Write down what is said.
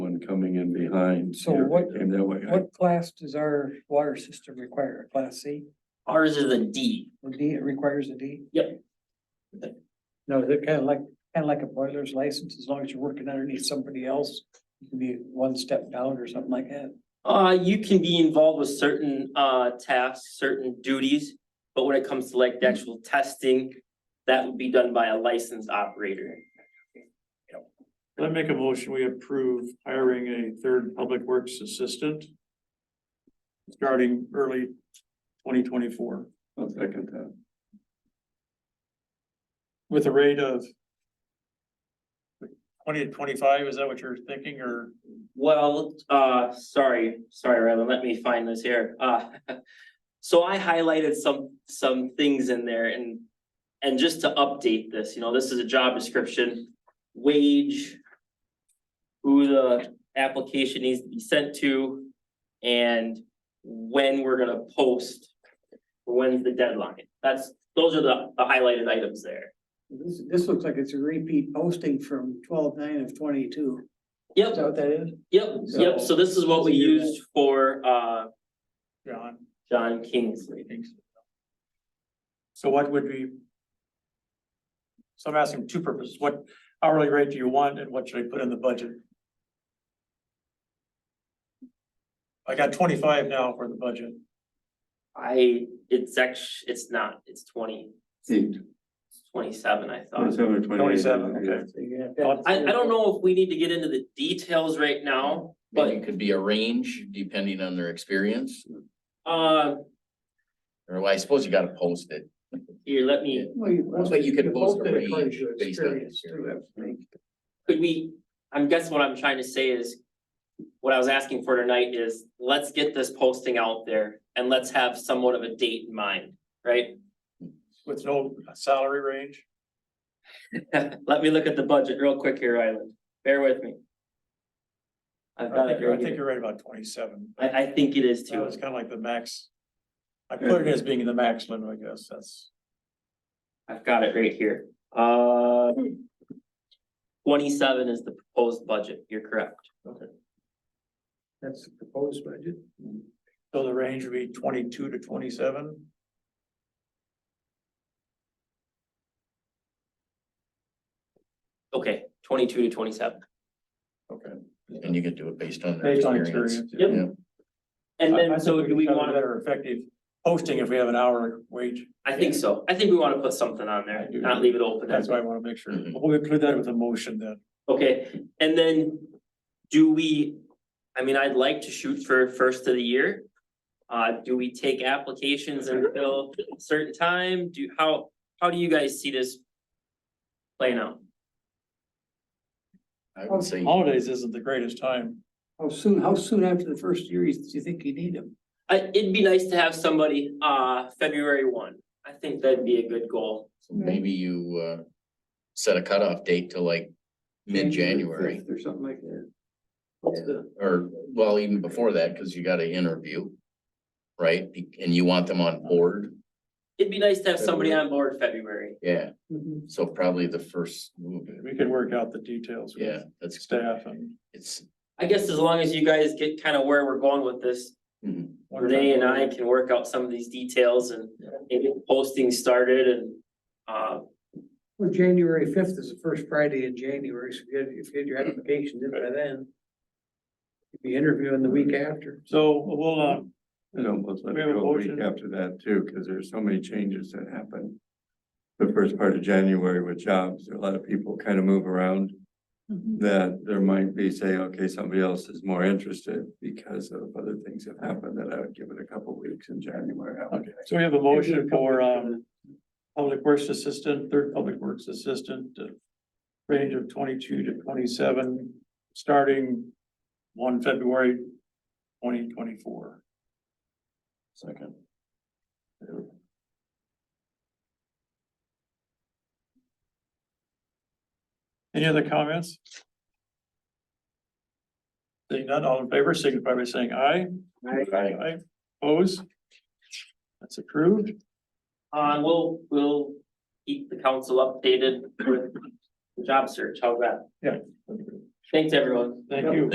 coming in behind. So yeah, what- Came that way. I- What class does our water system require? A Class C? Ours is a D. A D, it requires a D? Yep. No, they're kind of like, kind of like a boiler's license, as long as you're working underneath somebody else, you can be one step down or something like that. Uh, you can be involved with certain uh tasks, certain duties, but when it comes to like the actual testing, that would be done by a licensed operator. I make a motion, we approve hiring a third public works assistant. Starting early twenty twenty-four I'll second that. with a rate of. Twenty to twenty-five, is that what you're thinking, or? Well, uh, sorry, sorry, Rylan, let me find this here, uh. So I highlighted some, some things in there and, and just to update this, you know, this is a job description, wage. Who the application needs to be sent to and when we're gonna post. When's the deadline, that's, those are the, the highlighted items there. This, this looks like it's a repeat posting from twelve nine of twenty-two. Is Yep, that what that is? yep, yep, so this is what we So- used for, uh, John? John Kingsley. So what would be? So I'm asking two purposes, what hourly rate do you want and what should I put in the budget? I got twenty-five now for the budget, I, it's act, it's not, it's twenty, Eight, it's twenty-seven, I thought. twenty-seven or twenty-eight. 27, okay. yeah. So you have Well, that- I, I don't know if we need to get into the details right now, But but, it could be a range depending on their experience, uh, or well, I suppose you gotta post it. here, let me, Well, you- Well, but you could post a posted according range to based on experience, your- too, I think. could we, I'm guessing what I'm trying to say is. What I was asking for tonight is, let's get this posting out there and let's have somewhat of a date in mind, right? with no salary range, Let me look at the budget real quick here, Ryland, bear with me. I I've got think, it you're- I right think here, you're right about twenty-seven, I, I think it is that too, was kind of like the max. I put it as being the max limit, I guess, that's. I've got it right here, uh. Twenty-seven is the proposed budget, you're correct. That's the proposed budget. So the range would be twenty-two to twenty-seven? Okay, twenty-two to twenty-seven. Okay. And you could do it based on their Based on experience. experience. Yep. And I- I then, think so do we can have a wanna, Better effective posting if we have an hour wage. I think so, I think we wanna put something on I there, do. not leave it open. That's why I want to make sure. Mm-hmm. Mhm. We'll include that with a motion then. Okay, and then do we, I mean, I'd like to shoot for first of the year. Uh, do we take applications until a certain time? Do, how, how do you guys see this playing out? I would say, Holidays isn't the greatest time. How soon, how soon after the first year you- do you think you need them? I, it'd be nice to have somebody, uh, February one. I think that'd be a good goal. maybe you, uh, set a cutoff date to like mid-January, Fifth Or something like that. or, well, even before that, because you gotta interview. Right, and you want them on board, It'd be nice to have somebody on board February. yeah, Mhm. so probably the first move, We can work out the details yeah, with that's, staff and. it's. I guess as long as you guys get kind of where we're going with this, Renee and I can work out some of these details and and get posting started and. Uh, Well, January fifth is the first Friday in January, so if you had, if you had your application in by then. You'd be interviewing the week after. So we'll, uh, It almost let We me have a go a week motion. after that too, because there's so many changes that happen. The first part of January with jobs, a lot of people kind of move around. That there might be say, okay, somebody else is more interested because of other things that happened, that I would give it a couple weeks in January. I would- so we have a motion for, um, public works assistant, third public works assistant, uh, range of twenty-two to twenty-seven, starting one February twenty twenty-four. Second. Any other comments? Seeing none, all in favor, signify by saying aye. Aye. Oppose? That's approved. uh, we'll, we'll keep the council updated with the job search, how's that? Thanks, everyone. Thank you.